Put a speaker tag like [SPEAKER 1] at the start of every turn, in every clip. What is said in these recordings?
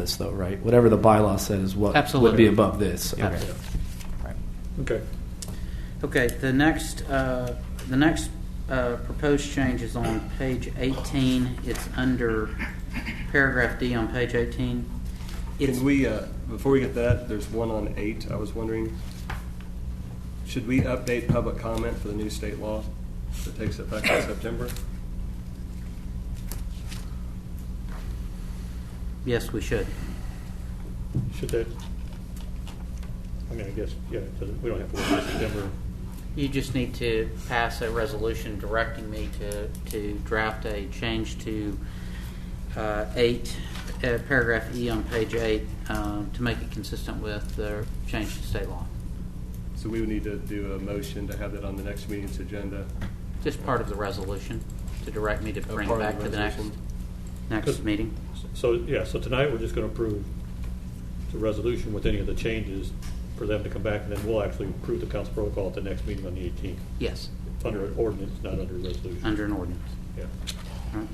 [SPEAKER 1] this though, right? Whatever the bylaw says, what would
[SPEAKER 2] Absolutely.
[SPEAKER 1] be above this. Okay.
[SPEAKER 2] Absolutely.
[SPEAKER 3] Okay.
[SPEAKER 2] Okay, the next, uh, the next uh, proposed change is on page 18. It's under paragraph D on page 18. It's
[SPEAKER 3] Can we, uh, before we get that, there's one on eight, I was wondering, should we update public comment for the new state law that takes effect in September?
[SPEAKER 2] Yes, we should.
[SPEAKER 4] Should that, I mean, I guess, yeah, it doesn't- we don't have to wait till September.
[SPEAKER 2] You just need to pass a resolution directing me to, to draft a change to uh, eight, uh, paragraph E on page eight, um, to make it consistent with the change to state law.
[SPEAKER 3] So we would need to do a motion to have that on the next meeting's agenda.
[SPEAKER 2] Just part of the resolution, to direct me to
[SPEAKER 3] A
[SPEAKER 2] bring it
[SPEAKER 3] Oh, part of
[SPEAKER 2] back
[SPEAKER 3] the
[SPEAKER 2] to the next,
[SPEAKER 3] resolution.
[SPEAKER 2] next meeting.
[SPEAKER 4] So, yeah, so tonight, we're just going to approve the resolution with any of the changes for them to come back, and then we'll actually approve the council protocol at the next meeting on the 18th.
[SPEAKER 2] Yes,
[SPEAKER 4] It's under an ordinance, not under a resolution.
[SPEAKER 2] under an ordinance.
[SPEAKER 4] Yeah.
[SPEAKER 2] All right.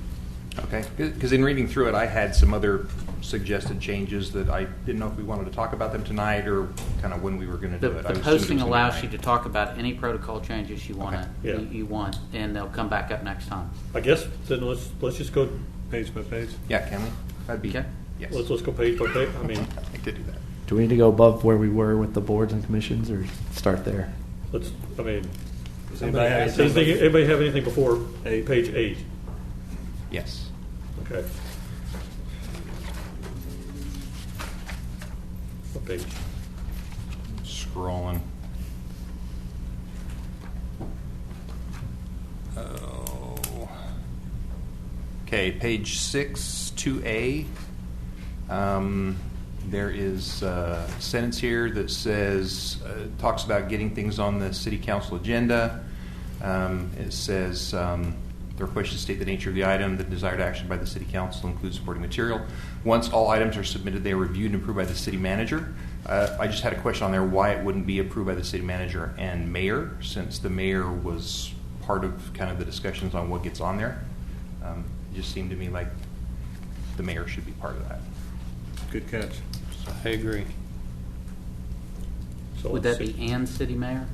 [SPEAKER 5] Okay, because in reading through it, I had some other suggested changes that I didn't know if we wanted to talk about them tonight or kind of when we were going to
[SPEAKER 2] The,
[SPEAKER 5] do it.
[SPEAKER 2] the
[SPEAKER 5] I assumed it was
[SPEAKER 2] posting
[SPEAKER 5] gonna be
[SPEAKER 2] allows you to
[SPEAKER 5] tonight.
[SPEAKER 2] talk about any protocol changes you wanna,
[SPEAKER 4] Okay. Yeah.
[SPEAKER 2] you you want, and they'll come back up next time.
[SPEAKER 4] I guess, then let's, let's just go,
[SPEAKER 3] Page by page?
[SPEAKER 5] Yeah, can we? That'd be,
[SPEAKER 2] Okay.
[SPEAKER 5] yes.
[SPEAKER 4] let's, let's go page by page, I mean,
[SPEAKER 5] I'd like to do that.
[SPEAKER 1] Do we need to go above where we were with the boards and commissions, or start there?
[SPEAKER 4] let's, I mean,
[SPEAKER 3] Does anybody have
[SPEAKER 4] does
[SPEAKER 3] anything?
[SPEAKER 4] anybody anybody have anything before
[SPEAKER 3] Eight.
[SPEAKER 4] page eight?
[SPEAKER 5] Yes.
[SPEAKER 4] Okay. What page?
[SPEAKER 5] Scrolling. Oh. Okay, page six, two A. Um, there is a sentence here that says, uh, talks about getting things on the city council agenda. Um, it says, um, the request should state the nature of the item, the desired action by the city council includes supporting material. Once all items are submitted, they are reviewed and approved by the city manager. Uh, I just had a question on there why it wouldn't be approved by the city manager and mayor, since the mayor was part of kind of the discussions on what gets on there. Um, it just seemed to me like the mayor should be part of that.
[SPEAKER 3] Good catch.
[SPEAKER 6] I agree.
[SPEAKER 4] So
[SPEAKER 2] Would
[SPEAKER 4] let's
[SPEAKER 2] that be
[SPEAKER 4] Oh, see.
[SPEAKER 2] and city mayor?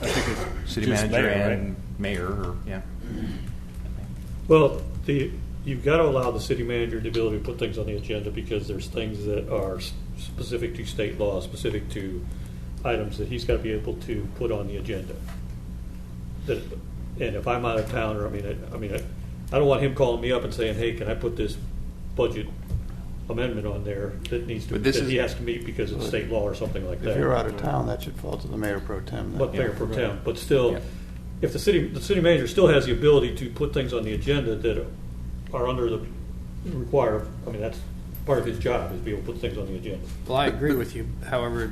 [SPEAKER 3] I think it's
[SPEAKER 5] City
[SPEAKER 3] just
[SPEAKER 5] manager
[SPEAKER 3] mayor, right?
[SPEAKER 5] and mayor, or, yeah.
[SPEAKER 4] Mm-hmm. Well, the, you've got to allow the city manager the ability to put things on the agenda because there's things that are s- specific to state law, specific to items that he's got to be able to put on the agenda. That, and if I'm out of town, or, I mean, I, I mean, I, I don't want him calling me up and saying, hey, can I put this budget amendment on there that needs to,
[SPEAKER 5] But this
[SPEAKER 4] that he
[SPEAKER 5] is-
[SPEAKER 4] has to meet because it's state law or something like that.
[SPEAKER 6] If you're out of town, that should fall to the mayor pro tem. then.
[SPEAKER 4] But Mayor Pro
[SPEAKER 3] Yeah.
[SPEAKER 4] Tem, but still,
[SPEAKER 5] Yeah.
[SPEAKER 4] if the city, the city manager still has the ability to put things on the agenda that are under the require, I mean, that's part of his job, is be able to put things on the agenda.
[SPEAKER 6] Well, I agree with you, however,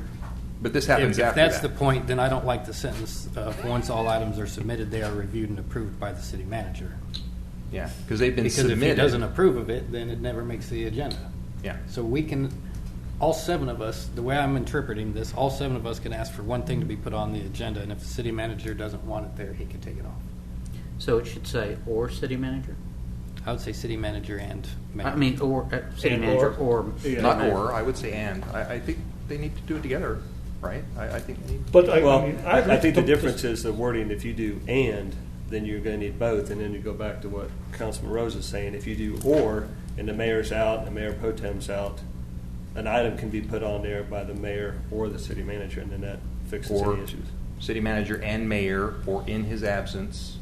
[SPEAKER 5] But this
[SPEAKER 6] if if
[SPEAKER 5] happens after that.
[SPEAKER 6] that's the point, then I don't like the sentence, of once all items are submitted, they are reviewed and approved by the city manager.
[SPEAKER 5] Yeah, because they've been
[SPEAKER 6] Because if
[SPEAKER 5] submitted.
[SPEAKER 6] he doesn't approve of it, then it never makes the agenda.
[SPEAKER 5] Yeah.
[SPEAKER 6] So we can, all seven of us, the way I'm interpreting this, all seven of us can ask for one thing to be put on the agenda, and if the city manager doesn't want it there, he can take it off.
[SPEAKER 2] So it should say or city manager?
[SPEAKER 6] I would say city manager and mayor.
[SPEAKER 2] I mean, or, uh, city
[SPEAKER 4] And
[SPEAKER 2] manager
[SPEAKER 4] or.
[SPEAKER 2] or.
[SPEAKER 3] Yeah.
[SPEAKER 5] Not or, I would say and. I, I think they need to do it together, right? I, I think they need.
[SPEAKER 4] But I, I
[SPEAKER 3] Well,
[SPEAKER 4] mean, I agree.
[SPEAKER 3] I think the difference is the wording, if you do and, then you're gonna need both, and then you go back to what Councilman Rose is saying, if you do or, and the mayor's out, and Mayor Pro Tem's out, an item can be put on there by the mayor or the city manager, and then that fixes
[SPEAKER 5] Or
[SPEAKER 3] any issues.
[SPEAKER 5] city manager and mayor, or in his absence,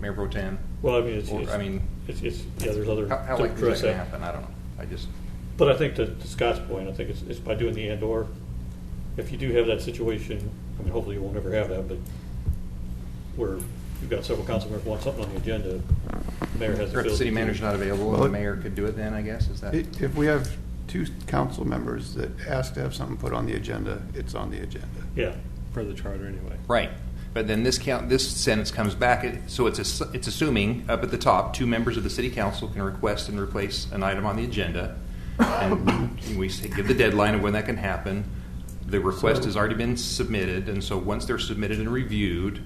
[SPEAKER 5] mayor pro tem.
[SPEAKER 4] Well, I mean, it's,
[SPEAKER 5] Or,
[SPEAKER 4] it's,
[SPEAKER 5] I mean,
[SPEAKER 4] it's, it's, yeah, there's other.
[SPEAKER 5] How, how
[SPEAKER 4] to
[SPEAKER 5] likely is
[SPEAKER 4] address
[SPEAKER 5] that to happen? I don't know. I just,
[SPEAKER 4] But I think to to Scott's point, I think it's, it's by doing the and or, if you do have that situation, I mean, hopefully you won't ever have that, but where you've got several council members want something on the agenda, the mayor has the
[SPEAKER 5] or if
[SPEAKER 4] ability.
[SPEAKER 5] the city
[SPEAKER 4] to-
[SPEAKER 5] manager's not available,
[SPEAKER 6] Well,
[SPEAKER 5] the
[SPEAKER 6] it-
[SPEAKER 5] mayor could do it then, I guess, is that?
[SPEAKER 6] If if we have two council members that ask to have something put on the agenda, it's on the agenda.
[SPEAKER 4] Yeah,
[SPEAKER 3] Per the charter, anyway.
[SPEAKER 5] Right. But then this count, this sentence comes back, it- so it's, ass- it's assuming, up at the top, two members of the city council can request and replace an item on the agenda. And we say, give the deadline of when that can happen. The request has already been submitted, and so once they're submitted and reviewed,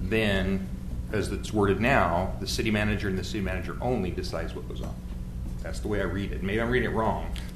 [SPEAKER 5] then, as it's worded now, the city manager and the city manager only decides what goes on. That's the way I read it. Maybe I'm reading it wrong.